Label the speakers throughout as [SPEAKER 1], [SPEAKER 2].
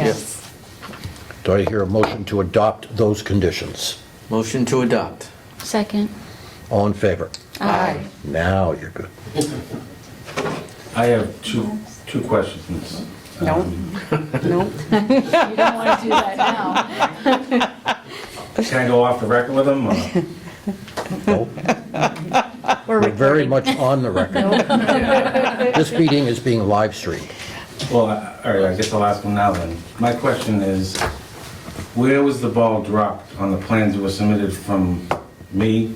[SPEAKER 1] Yes.
[SPEAKER 2] Do I hear a motion to adopt those conditions?
[SPEAKER 3] Motion to adopt.
[SPEAKER 1] Second.
[SPEAKER 2] All in favor?
[SPEAKER 1] Aye.
[SPEAKER 2] Now you're good.
[SPEAKER 4] I have two, two questions.
[SPEAKER 5] No, no.
[SPEAKER 1] You don't want to do that now.
[SPEAKER 4] Can I go off the record with them? or-
[SPEAKER 2] Nope. We're very much on the record. This meeting is being live streamed.
[SPEAKER 4] Well, I- all right, I guess I'll ask them now then. My question is, where was the ball dropped on the plans that were submitted from me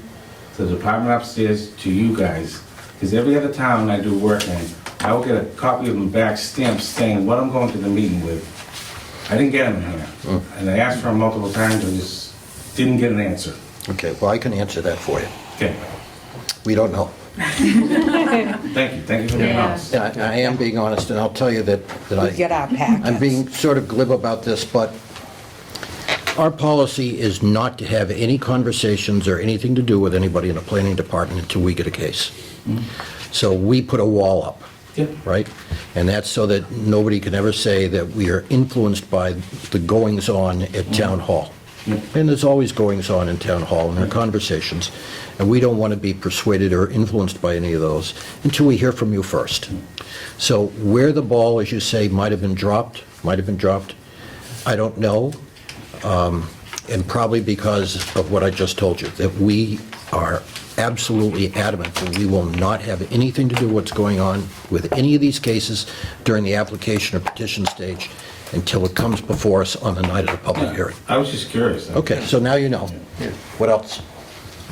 [SPEAKER 4] to the department upstairs to you guys? Because every other town I do work in, I will get a copy of them back stamped saying what I'm going to the meeting with. I didn't get them here. And I asked for them multiple times, I just didn't get an answer.
[SPEAKER 2] Okay, well, I can answer that for you.
[SPEAKER 4] Okay,
[SPEAKER 2] We don't know.
[SPEAKER 4] thank you, thank you for being
[SPEAKER 1] Yeah.
[SPEAKER 4] honest.
[SPEAKER 2] And I I am being honest, and I'll tell you that, that I...
[SPEAKER 5] We get our packets.
[SPEAKER 2] I'm being sort of glib about this, but our policy is not to have any conversations or anything to do with anybody in the planning department until we get a case. So we put a wall up.
[SPEAKER 4] Yep.
[SPEAKER 2] Right? And that's so that nobody can ever say that we are influenced by the goings-on at town hall. And there's always goings-on in town hall, and there are conversations, and we don't want to be persuaded or influenced by any of those until we hear from you first. So where the ball, as you say, might have been dropped, might have been dropped, I don't know, um, and probably because of what I just told you, that we are absolutely adamant that we will not have anything to do what's going on with any of these cases during the application or petition stage until it comes before us on the night of the public hearing.
[SPEAKER 4] I was just curious.
[SPEAKER 2] Okay, so now you know. What else?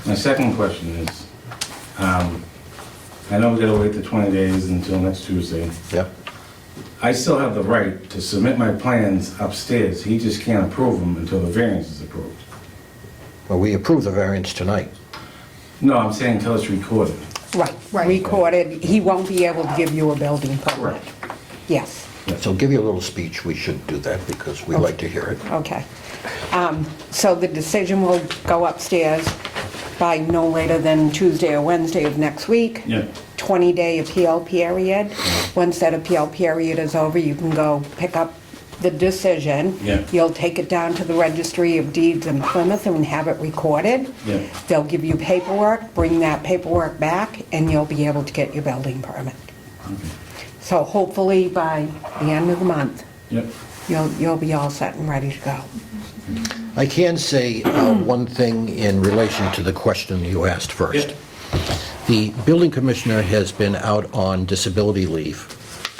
[SPEAKER 4] My second question is, um, I know we gotta wait the 20 days until next Tuesday.
[SPEAKER 2] Yeah.
[SPEAKER 4] I still have the right to submit my plans upstairs. He just can't approve them until the variance is approved.
[SPEAKER 2] Well, we approve the variance tonight.
[SPEAKER 4] No, I'm saying until it's recorded.
[SPEAKER 5] Right, recorded, he won't be able to give you a building permit. Yes,
[SPEAKER 2] So give you a little speech. We should do that because we like to hear it.
[SPEAKER 5] okay. Um, So the decision will go upstairs by no later than Tuesday or Wednesday of next week.
[SPEAKER 4] Yeah.
[SPEAKER 5] 20-day appeal period. Once that appeal period is over, you can go pick up the decision.
[SPEAKER 4] Yeah.
[SPEAKER 5] You'll take it down to the Registry of Deeds in Plymouth and have it recorded.
[SPEAKER 4] Yeah.
[SPEAKER 5] They'll give you paperwork, bring that paperwork back, and you'll be able to get your building permit. So hopefully by the end of the month,
[SPEAKER 4] Yep.
[SPEAKER 5] you'll, you'll be all set and ready to go.
[SPEAKER 2] I can say uh, one thing in relation to the question you asked first.
[SPEAKER 4] Yep.
[SPEAKER 2] The building commissioner has been out on disability leave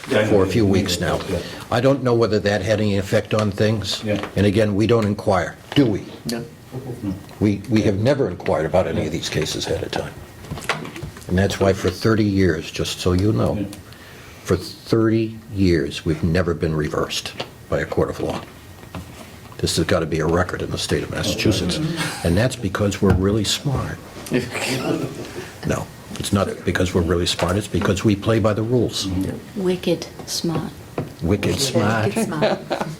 [SPEAKER 4] Yeah, I know.
[SPEAKER 2] for a few weeks now.
[SPEAKER 4] Yeah.
[SPEAKER 2] I don't know whether that had any effect on things.
[SPEAKER 4] Yeah.
[SPEAKER 2] And again, we don't inquire, do we?
[SPEAKER 3] No.
[SPEAKER 2] We, we have never inquired about any of these cases ahead of time. And that's why for 30 years, just so you know,
[SPEAKER 4] Yeah.
[SPEAKER 2] for 30 years, we've never been reversed by a court of law. This has got to be a record in the state of Massachusetts. And that's because we're really smart. No, it's not because we're really smart, it's because we play by the rules.
[SPEAKER 1] Wicked smart.
[SPEAKER 2] Wicked smart.
[SPEAKER 1] Wicked smart.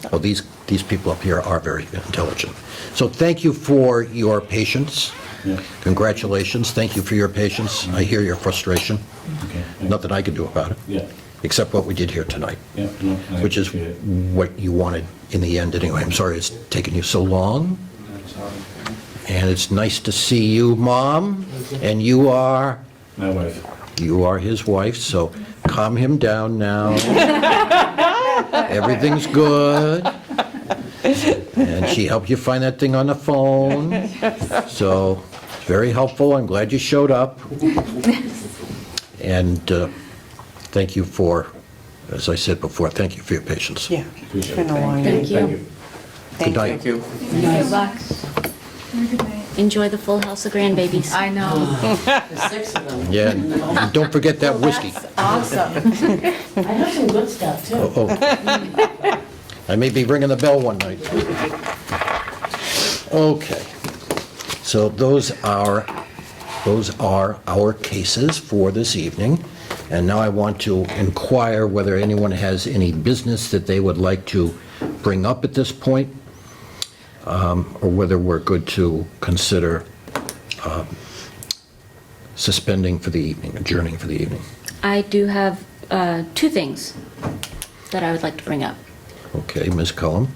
[SPEAKER 2] Well, these, these people up here are very intelligent. So thank you for your patience.
[SPEAKER 4] Yeah.
[SPEAKER 2] Congratulations, thank you for your patience. I hear your frustration.
[SPEAKER 4] Okay.
[SPEAKER 2] Nothing I can do about it.
[SPEAKER 4] Yeah.
[SPEAKER 2] Except what we did here tonight.
[SPEAKER 4] Yeah, no, I
[SPEAKER 2] Which is
[SPEAKER 4] appreciate it.
[SPEAKER 2] what you wanted in the end anyway. I'm sorry it's taken you so long. And it's nice to see you, Mom. And you are,
[SPEAKER 4] My wife.
[SPEAKER 2] you are his wife, so calm him down now. Everything's good. And she helped you find that thing on the phone. So, it's very helpful. I'm glad you showed up. And uh, thank you for, as I said before, thank you for your patience.
[SPEAKER 5] Yeah, it's been a long
[SPEAKER 1] Thank
[SPEAKER 5] night.
[SPEAKER 1] you.
[SPEAKER 5] Thank
[SPEAKER 2] night.
[SPEAKER 5] you.
[SPEAKER 3] Thank you.
[SPEAKER 6] Good luck.
[SPEAKER 1] Enjoy the full house of grandbabies.
[SPEAKER 6] I know.
[SPEAKER 7] There's six of them.
[SPEAKER 2] Yeah, and don't forget that whiskey.
[SPEAKER 6] That's awesome.
[SPEAKER 7] I have some good stuff, too.
[SPEAKER 2] Oh. I may be ringing the bell one night. Okay. So those are, those are our cases for this evening. And now I want to inquire whether anyone has any business that they would like to bring up at this point, um, or whether we're good to consider um, suspending for the evening, adjourning for the evening.
[SPEAKER 1] I do have uh, two things that I would like to bring up.
[SPEAKER 2] Okay, Ms. Cullum?